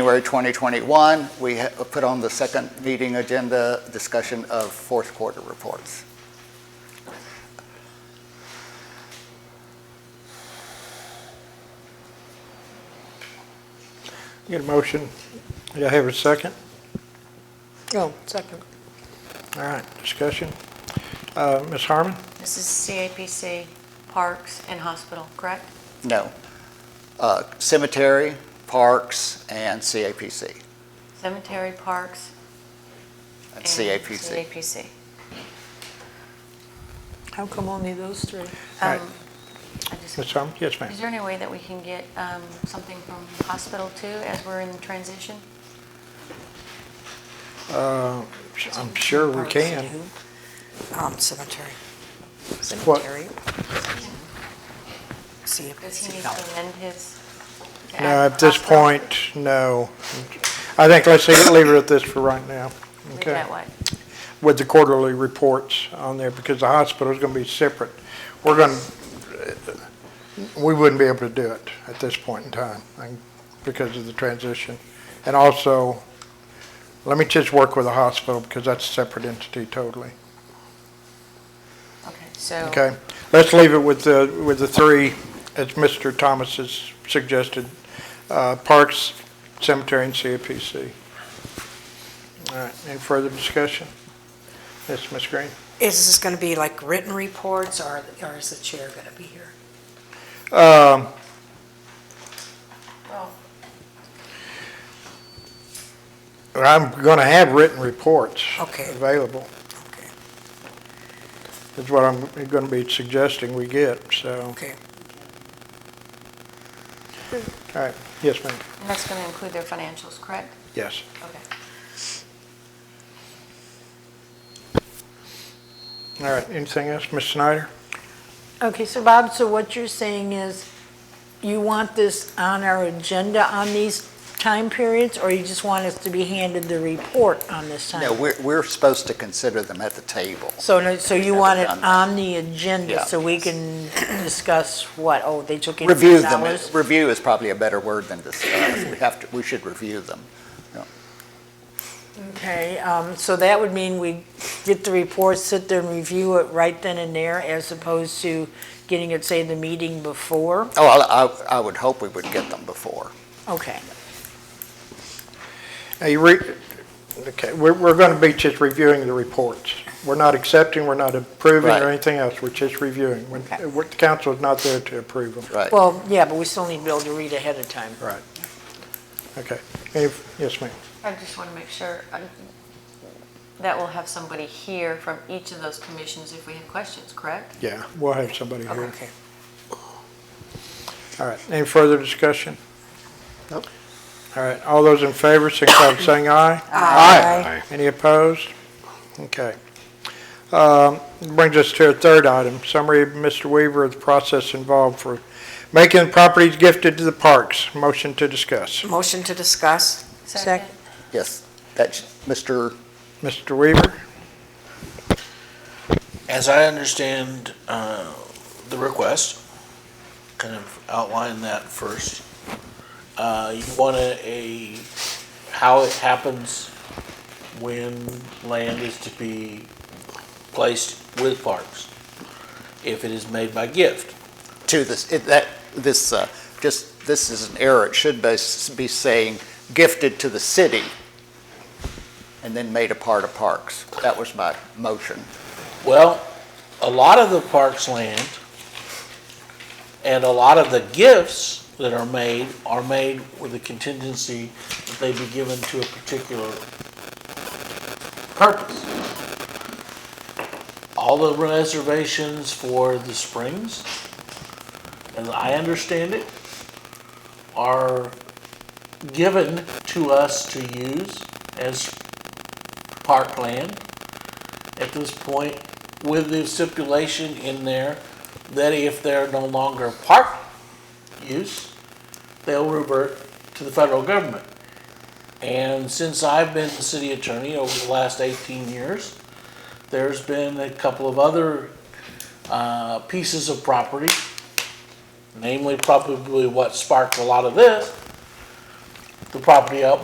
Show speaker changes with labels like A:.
A: January 2021, we ha- put on the second meeting agenda discussion of fourth quarter reports.
B: Get a motion. Do I have a second?
C: Oh, second.
B: All right, discussion. Uh, Ms. Harmon?
D: This is CAPC, Parks, and Hospital, correct?
A: No. Uh, Cemetery, Parks, and CAPC.
D: Cemetery, Parks,
A: And
D: and
A: CAPC.
D: CAPC.
C: How come only those three?
B: All right.
D: Um, I just-
B: Ms. Harmon? Yes, ma'am.
D: Is there any way that we can get um, something from hospital too, as we're in the transition?
B: Uh, I'm sure we can.
E: Um, cemetery.
B: What?
E: Cemetery. See if
D: Does
E: it's
D: he need to amend his? to
B: No,
D: add
B: at this
D: hospital?
B: point, no. I think let's leave leave it at this for right now.
D: Leave
B: Okay.
D: that way.
B: With the quarterly reports on there, because the hospital is going to be separate. We're going, to we wouldn't be able to do it at this point in time I- because of the transition. And also, let me just work with the hospital because that's a separate entity totally.
D: Okay, so,
B: Okay, let's leave it with the, with the three, as Mr. Thomas has suggested, uh, Parks, Cemetery, and CAPC. All right, any further discussion? Yes, Ms. Green?
E: Is this gonna be like written reports or, or is the chair gonna be here?
B: Um,
D: well,
B: I'm going to have written reports.
E: Okay.
B: Available,
E: Okay,
B: is what I'm going to be suggesting we get, so,
E: okay.
B: all right, yes, ma'am,
D: and that's going to include their financials, correct?
B: yes.
D: Okay.
B: All right, anything else, Ms. Snyder?
C: Okay, so Bob, so what you're saying is you want this on our agenda on these time periods, or you just want us to be handed the report on this time?
A: No, we're, we're supposed to consider them at the table.
C: So, no- so you
A: Never
C: want it
A: done that.
C: on the
A: Yeah.
C: agenda so we can discuss what, oh, they took in
A: Review
C: dollars?
A: them. Review is probably a better word than discuss. We have to, we should review them.
C: Okay, um, so that would mean we get the report, sit there and review it right then and there as opposed to getting it, say, the meeting before?
A: Oh, I, I- I would hope we would get them before.
C: Okay.
B: Now, you re, okay, we're, we're going to be just reviewing the reports. We're not accepting, we're not approving
A: Right.
B: or anything else, we're just reviewing. When,
C: Okay.
B: what- the council is not there to approve them.
A: Right.
C: Well, yeah, but we still need to be able to read ahead of time.
B: Right. Okay. Any- Yes, ma'am.
D: I just want to make sure um, that we'll have somebody here from each of those commissions if we have questions, correct?
B: Yeah, we'll have somebody here.
D: Okay.
B: All right, any further discussion?
A: Nope.
B: All right, all those in favor, signify by saying aye. Aye. Any opposed? Okay. Um, Brings us to a third item, summary of Mr. Weaver of the process involved for making properties gifted to the parks. Motion to discuss.
E: Motion to discuss?
C: Second.
A: Yes, that's, Mr.,
B: Mr. Weaver?
F: As I understand uh, the request, kind of outline that first. Uh, You want a- a, how it happens when land is to be placed with parks, if it is made by gift.
A: to this, it- that, this, uh, just, this is an error. It should be be saying gifted to the city and then made a part of parks. That was my motion.
F: Well, a lot of the park's land and a lot of the gifts that are made are made with the contingency that they be given to a particular purpose. All the reservations for the springs, as I understand it, are given to us to use as parkland at this point with the stipulation in there that if they're no longer park use, they'll revert to the federal government. And since I've been the city attorney over the last 18 years, there's been a couple of other uh, pieces of property, namely probably what sparked a lot of this, the property up